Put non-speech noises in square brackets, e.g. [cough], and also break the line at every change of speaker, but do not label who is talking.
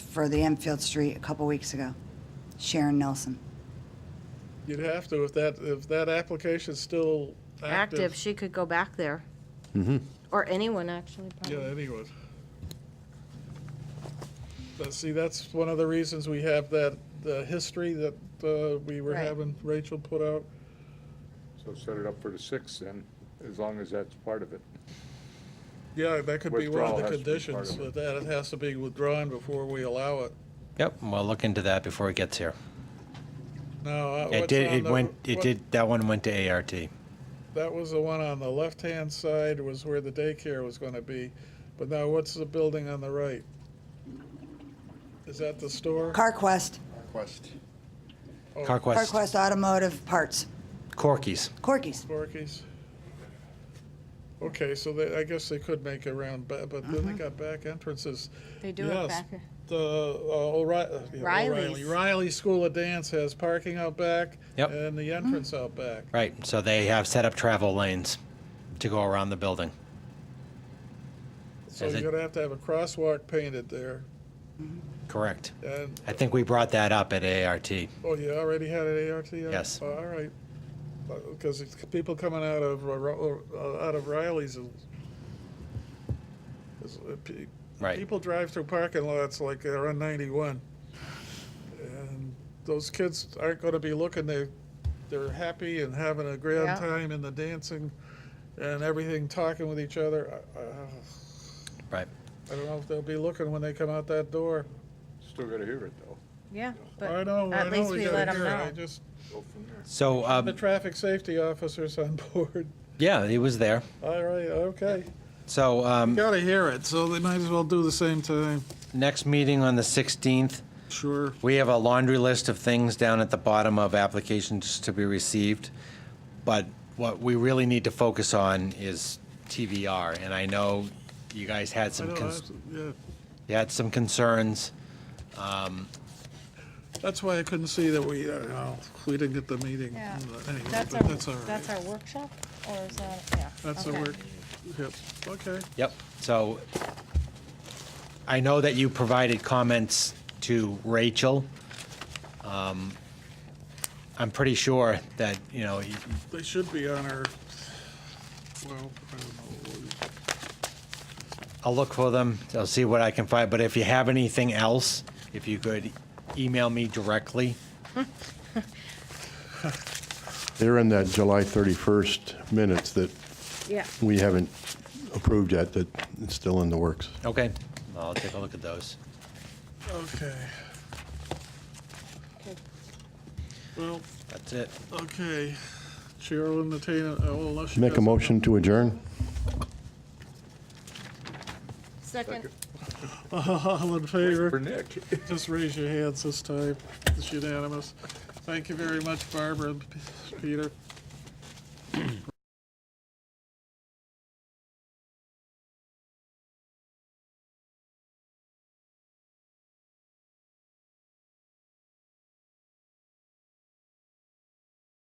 for the Enfield Street a couple weeks ago. Sharon Nelson.
You'd have to, if that, if that application's still
active,
active.
she could go back there. Or anyone, actually,
Yeah,
probably.
anyone. But see, that's one of the reasons we have that, the history that uh, we were
Right.
having Rachel put out.
So set it up for the sixth then, as long as that's part of it.
Yeah, that could be one of
Withdrawal
the
has to be part
conditions,
of it.
but that it has to be withdrawn before we allow it.
Yep, and we'll look into that before it gets here.
Now, uh,
It
what's
did,
on
it
the-
went, it
what-
did, that one went to ART.
That was the one on the left-hand side was where the daycare was gonna be, but now what's the building on the right? Is that the store?
CarQuest,
Quest.
Oh.
CarQuest,
CarQuest Automotive Parts,
Corky's.
Corky's.
Porky's? Okay, so they, I guess they could make a round, ba- but then they got back entrances.
They do
Yes.
it back.
The uh, O'Ri- uh, yeah, O'Reilly,
Riley's.
Riley School of Dance has parking out back
Yep.
and the entrance out back.
Right, so they have set up travel lanes to go around the building.
So
Is
you're
it-
gonna have to have a crosswalk painted there.
Correct.
And,
I think we brought that up at ART.
oh, you already had an ART?
Yes.
Oh, All right. Uh, Because people coming out of, uh, Ro- uh, out of Riley's is- is, uh, pe-
Right,
People drive through parking lots like they're on 91. And those kids aren't going to be looking, they, they're happy and having a grand
Yeah.
time in the dancing and everything, talking with each other. I- I-
right.
I don't know if they'll be looking when they come out that door.
Still gotta hear it though.
Yeah,
I
but
know, I
at
know,
least
we
we
got
let
to
'em
hear it. I
know.
just,
Go from there.
So,
the
um,
traffic safety officer's on board. [laughs]
yeah, it was there.
All right, okay.
So, um,
Got to hear it, so they might as well do the same time.
next meeting on the 16th,
Sure.
we have a laundry list of things down at the bottom of applications to be received. But what we really need to focus on is TVR, and I know you guys had
I
some,
know,
cons-
that's- yeah.
you had some concerns.
That's why I couldn't see that we, uh, oh, we didn't get the meeting.
Yeah.
Anyway,
That's
but that's all
our,
right.
that's our workshop, or is that, yeah.
That's the
okay.
work. Yep, okay.
Yep, so I know that you provided comments to Rachel. Um, I'm pretty sure that, you know, you-
They should be on our, well, I don't know.
I'll look for them, I'll see what I can find, but if you have anything else, if you could email me directly,
They're in that July 31st minutes that
Yeah,
we haven't approved yet, that it's still in the works.
okay? I'll take a look at those.
Okay. Well,
That's it.
okay. Chair will entertain, a- oh, unless you.
Make a
guys-
motion to adjourn?
second,
[laughs] All in favor?
For Nick.
Just raise your hands this time. It's unanimous. Thank you very much, Barbara and P- Peter.